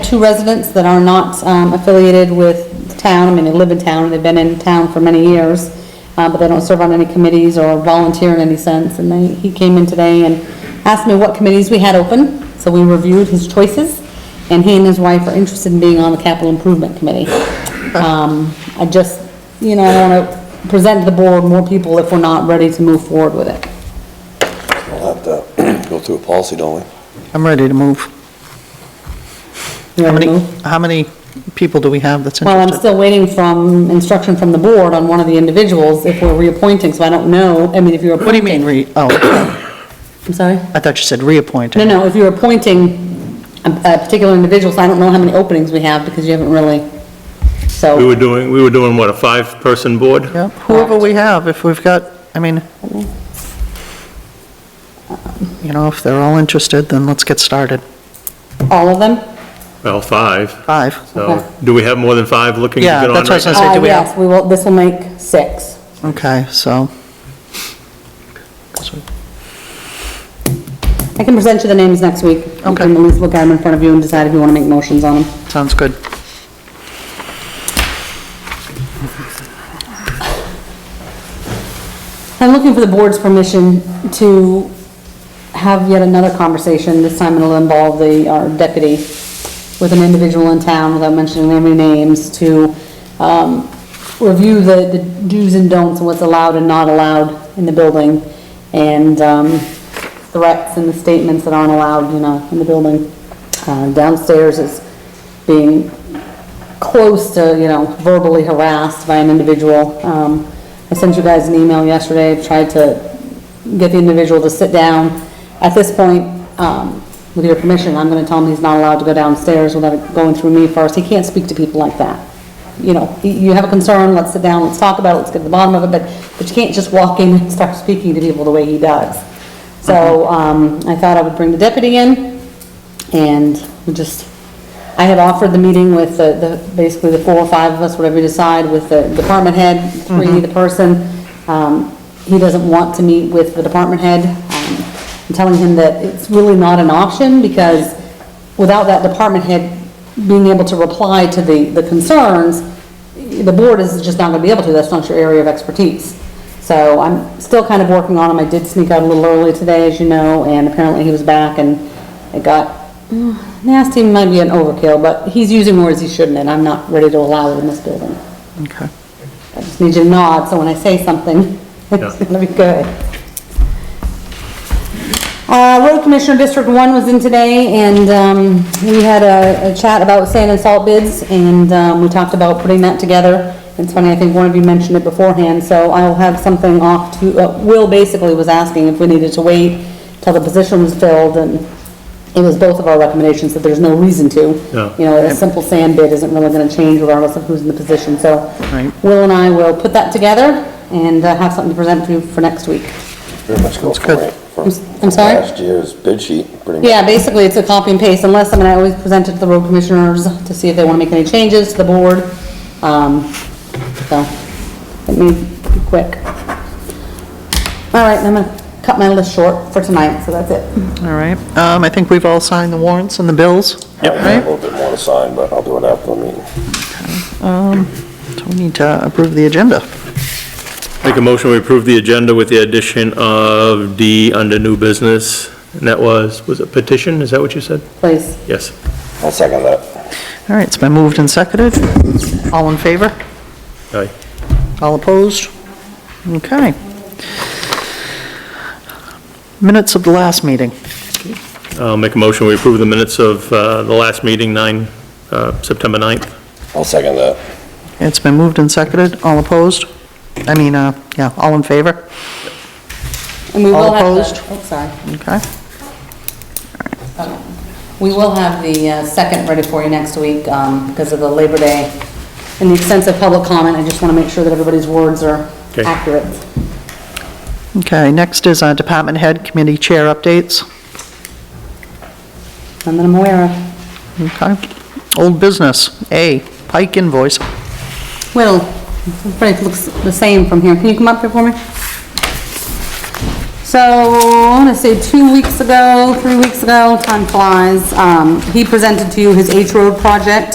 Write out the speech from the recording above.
two residents that are not um, affiliated with town, I mean, they live in town, they've been in town for many years, uh, but they don't serve on any committees or volunteer in any sense, and they, he came in today and asked me what committees we had open, so we reviewed his choices, and he and his wife are interested in being on the capital improvement committee. Um, I just, you know, I want to present to the board more people if we're not ready to move forward with it. We'll have to uh, go through a policy, don't we? I'm ready to move. You How wanna many, move? how many people do we have that's Well, I'm interested? still waiting from instruction from the board on one of the individuals if we're reappointing, so I don't know, I mean, if you're. What do you mean, re, oh, I'm sorry? I thought you said reappointed. No, no, if you're appointing a, a particular individual, so I don't know how many openings we have because you haven't really, We so. were doing, we were doing, what, a five-person board? Yeah, whoever we have, if we've got, I mean, you know, if they're all interested, then let's get started. All of them? Well, five, Five. Okay. so, do we have more than five looking to Yeah, get on that's what I was right gonna say. now? Uh, do we have- Yes, we will, this will make six. Okay, so. I can present you the names next week. You Okay. can at least look at them in front of you and decide if you want to make motions on them. Sounds good. I'm looking for the board's permission to have yet another conversation. This time it'll involve the, our deputy with an individual in town, without mentioning any names, to, um, review the, the do's and don'ts and what's allowed and not allowed in the building, and, um, threats and the statements that aren't allowed, you know, in the building. Uh, downstairs is being close to, you know, verbally harassed by an individual. Um, I sent you guys an email yesterday, I've tried to get the individual to sit down. At this point, um, with your permission, I'm gonna tell him he's not allowed to go downstairs without it going through me first. He can't speak to people like that. You know, y- you have a concern, let's sit down, let's talk about it, let's get to the bottom of it, but, but you can't just walk in and start speaking to people the way he does. So, um, I thought I would bring the deputy in, and we just, I had offered the meeting with the, the, basically the four or five of us, whatever you decide, with the department head, three, the person. Um, he doesn't want to meet with the department head. Um, I'm telling him that it's really not an option because without that department head being able to reply to the, the concerns, the board is just not gonna be able to, that's not your area of expertise. So I'm still kind of working on him. I did sneak out a little early today, as you know, and apparently he was back and it got mm, nasty, might be an overkill, but he's using words he shouldn't and I'm not ready to allow it in this building. Okay. I just need you to nod, so when I say something, it's Yeah. gonna be good. Uh, Road Commissioner District One was in today, and, um, we had a, a chat about sand and salt bids, and, um, we talked about putting that together. It's funny, I think one of you mentioned it beforehand, so I'll have something off to, uh, Will basically was asking if we needed to wait till the position was filled, and it was both of our recommendations that there's no reason to. Yeah. You know, a simple sand bid isn't really gonna change regardless of who's in the position, so. Right. Will and I will put that together and uh, have something to present to you for next week. Pretty much go for good. it. for I'm s- I'm sorry? Last year's bid sheet, pretty much. Yeah, basically, it's a copy and paste, unless, I mean, I always present it to the road commissioners to see if they want to make any changes to the board. Um, so, it may be quick. All right, I'm gonna cut my list short for tonight, so that's it. All right. Um, I think we've all signed the warrants and the bills. I have a little bit more to sign, but I'll do it after the meeting. Um, So we need to approve the agenda. Make a motion, we approve the agenda with the addition of D under new business, and that was, was it petition, is that what you said? Please, Yes. I'll second that. All right, it's been moved and seconded. All in favor? Aye. All opposed? Okay. Minutes of the last meeting. I'll make a motion, we approve the minutes of uh, the last meeting, 9, uh, September 9th. I'll second that. It's been moved and seconded. All opposed? I mean, uh, yeah, all in favor? and we All will have the- opposed? Oh, sorry. Okay. We will have the uh, second ready for you next week um, because of the Labor Day and the extensive public comment. I just want to make sure that everybody's words are Okay. accurate. Okay, next is uh, Department Head Committee Chair Updates. None that I'm aware of. Okay. Old Business, A, Pike invoice. Will, everybody looks the same from here. Can you come up here for me? So, I want to say two weeks ago, three weeks ago, time flies, um, he presented to you his H Road project.